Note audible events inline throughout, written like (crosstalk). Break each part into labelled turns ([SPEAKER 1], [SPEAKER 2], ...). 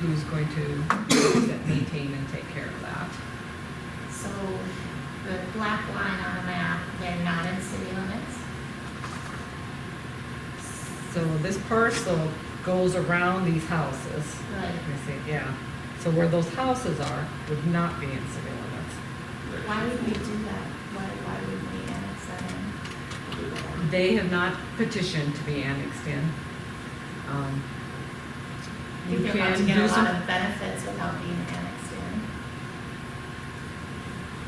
[SPEAKER 1] who's going to maintain and take care of that.
[SPEAKER 2] So the black line on the map, they're not in city limits?
[SPEAKER 1] So this parcel goes around these houses.
[SPEAKER 2] Right.
[SPEAKER 1] Let me see, yeah. So where those houses are would not be in city limits.
[SPEAKER 2] Why would we do that? Why, why would we annex that in?
[SPEAKER 1] They have not petitioned to be annexed in. Um,
[SPEAKER 2] You
[SPEAKER 1] You
[SPEAKER 2] are about
[SPEAKER 1] can
[SPEAKER 2] to get a
[SPEAKER 1] do
[SPEAKER 2] lot
[SPEAKER 1] some,
[SPEAKER 2] of benefits without being annexed in.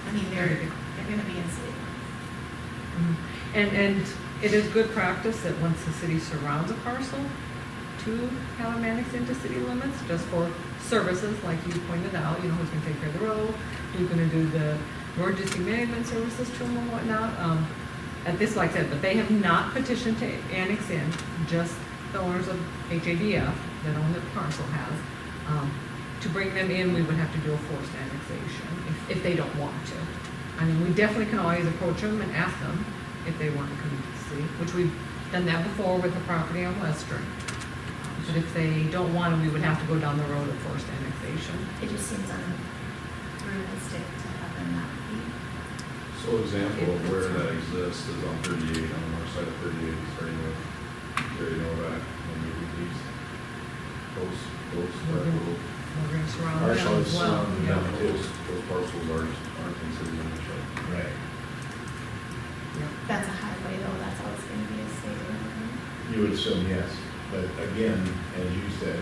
[SPEAKER 2] I mean, they're, they're gonna be in city.
[SPEAKER 1] Mhm. and, and it is good practice that once the city surrounds a parcel, to have them annexed into city limits, just for services, like you pointed out, you know, who's gonna take care of the road, who's gonna do the emergency management services to them and whatnot. Um, At this, like I said, but they have not petitioned to annex in, just the owners of HADF that own the parcel has. Um, To bring them in, we would have to do a forced annexation, if, if they don't want to. I mean, we definitely can always approach them and ask them if they want to come to the city, which we've done that before with the property on Western. But if they don't want it, we would have to go down the road of forced annexation.
[SPEAKER 2] It just seems unrealistic to have them not be.
[SPEAKER 3] So example of where that exists is on thirty-eight, on the north side of thirty-eight, starting with Gary Novak, and moving east. Those, those, that little,
[SPEAKER 1] We're gonna surround
[SPEAKER 3] our
[SPEAKER 1] them
[SPEAKER 3] side
[SPEAKER 1] as well.
[SPEAKER 3] surrounding
[SPEAKER 1] Yeah.
[SPEAKER 3] them, those, those parcels aren't, aren't considered in the show.
[SPEAKER 4] Right.
[SPEAKER 1] Yeah.
[SPEAKER 2] That's a highway though, that's always gonna be a city limit.
[SPEAKER 4] You would assume yes, but again, as you said,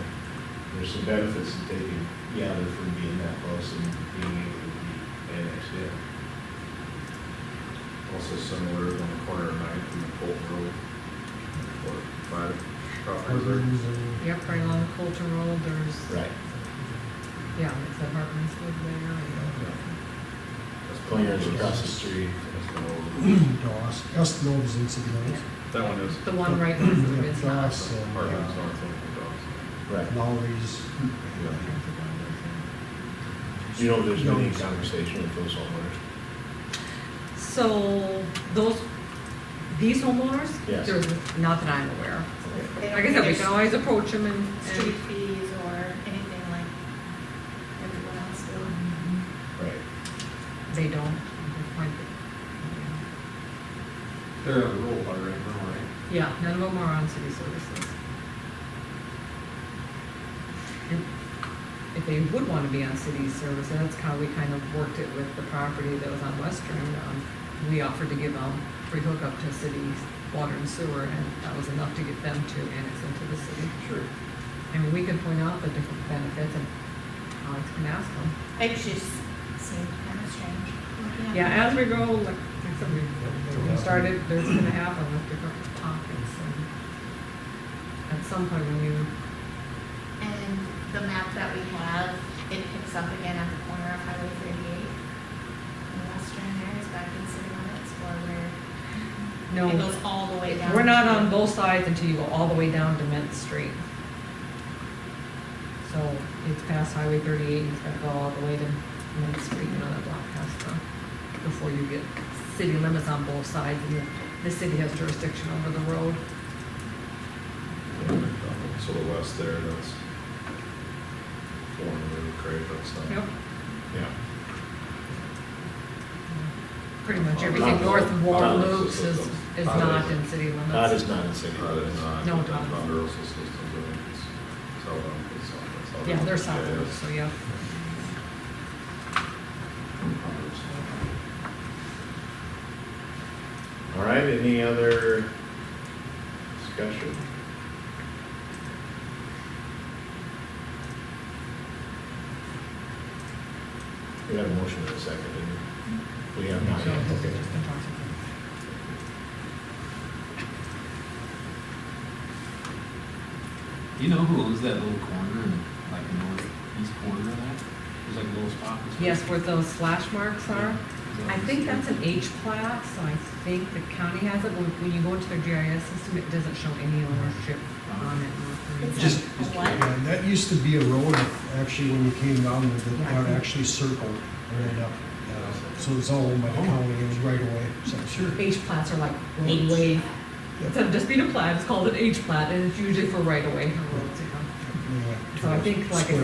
[SPEAKER 4] there's some benefits to taking, yeah, they're from being that close and being able to be annexed in.
[SPEAKER 3] Also similar on the corner of Ninth and the Colton Road, or five properties there.
[SPEAKER 1] Yep, right along Colton Road, there's,
[SPEAKER 4] Right.
[SPEAKER 1] yeah, it's the Hartman's wood there. and-
[SPEAKER 3] That's
[SPEAKER 4] Clearance across the street.
[SPEAKER 3] That's been all over.
[SPEAKER 4] (clears throat)
[SPEAKER 5] No, Os- Espinola is in city limits.
[SPEAKER 3] That one is,
[SPEAKER 1] The one right next to it
[SPEAKER 5] Yeah,
[SPEAKER 1] is not.
[SPEAKER 5] Doss and,
[SPEAKER 3] part of it's
[SPEAKER 5] uh,
[SPEAKER 3] north of Dawson.
[SPEAKER 4] Right.
[SPEAKER 5] Lowry's.
[SPEAKER 4] You know, there's been any conversation with those homeowners.
[SPEAKER 1] So those, these homeowners?
[SPEAKER 4] Yes.
[SPEAKER 1] There's not that I'm aware of.
[SPEAKER 2] They don't
[SPEAKER 1] Like I said, we
[SPEAKER 2] get
[SPEAKER 1] can always approach them and. and-
[SPEAKER 2] Street fees or anything like everyone else will.
[SPEAKER 4] Right.
[SPEAKER 1] They don't. They're quite- yeah.
[SPEAKER 3] They're on the roll by right now, right?
[SPEAKER 1] Yeah, none of them are on city services. And If they would want to be on city service, that's how we kind of worked it with the property that was on Western. um, We offered to give them free hookup to city water and sewer, and that was enough to get them to annex into the city.
[SPEAKER 3] Sure.
[SPEAKER 1] And we can point out the different benefits, and Alex can ask them.
[SPEAKER 2] It just seemed kind of strange. looking at
[SPEAKER 1] Yeah,
[SPEAKER 2] it.
[SPEAKER 1] as we grow, like, like some we we started, there's gonna happen with different pockets and at some point when you,
[SPEAKER 2] And the map that we have, it picks up again at the corner of Highway thirty-eight. And Western there is back in city limits or where it
[SPEAKER 1] no,
[SPEAKER 2] goes all the way down.
[SPEAKER 1] we're not
[SPEAKER 2] to-
[SPEAKER 1] on both sides until you go all the way down to Mint Street. So it's past Highway thirty-eight, it's gotta go all the way to Mint Street, you know, that block past the, before you get city limits on both sides, and the, the city has jurisdiction over the road.
[SPEAKER 3] So the west there, that's Warren Road, Craig, that's not.
[SPEAKER 1] Yep,
[SPEAKER 4] Yeah.
[SPEAKER 1] pretty much
[SPEAKER 3] Well,
[SPEAKER 1] everything
[SPEAKER 4] Thomas-
[SPEAKER 1] north of War
[SPEAKER 4] Thomas
[SPEAKER 1] Loops is,
[SPEAKER 3] is-
[SPEAKER 1] is
[SPEAKER 3] Thomas-
[SPEAKER 1] not in city limits.
[SPEAKER 4] That is not in city
[SPEAKER 3] Uh,
[SPEAKER 4] limits.
[SPEAKER 3] it's not,
[SPEAKER 1] No,
[SPEAKER 3] but
[SPEAKER 1] Thomas.
[SPEAKER 3] Thunder also systems, I think it's south on, it's south, it's south.
[SPEAKER 1] Yeah, they're south,
[SPEAKER 3] Yeah,
[SPEAKER 1] so yeah.
[SPEAKER 4] All right, any other discussion? We have a motion in a second, didn't we? We have not
[SPEAKER 1] So,
[SPEAKER 4] yet,
[SPEAKER 1] it's
[SPEAKER 4] okay.
[SPEAKER 1] just been talked about.
[SPEAKER 6] Do you know who owns that little corner, in, like the northeast corner of that? There's like a little spot. that's-
[SPEAKER 1] Yes, where those slash marks are.
[SPEAKER 6] Is that-
[SPEAKER 1] I think that's an H plat, so I think the county has it. When when you go into their GIS system, it doesn't show any ownership on it.
[SPEAKER 2] It's
[SPEAKER 5] Just-
[SPEAKER 2] a what?
[SPEAKER 5] Yeah, that used to be a road, actually, when you came down, with it,
[SPEAKER 1] Yeah.
[SPEAKER 5] that actually circled and ended up. uh, So it's all owned by the
[SPEAKER 1] Oh.
[SPEAKER 5] county, it was right away, so sure.
[SPEAKER 1] H plats are like roadway, instead of just being a plat, it's called an H plat, and it's usually for right away.
[SPEAKER 5] Yeah.
[SPEAKER 1] So I think, like I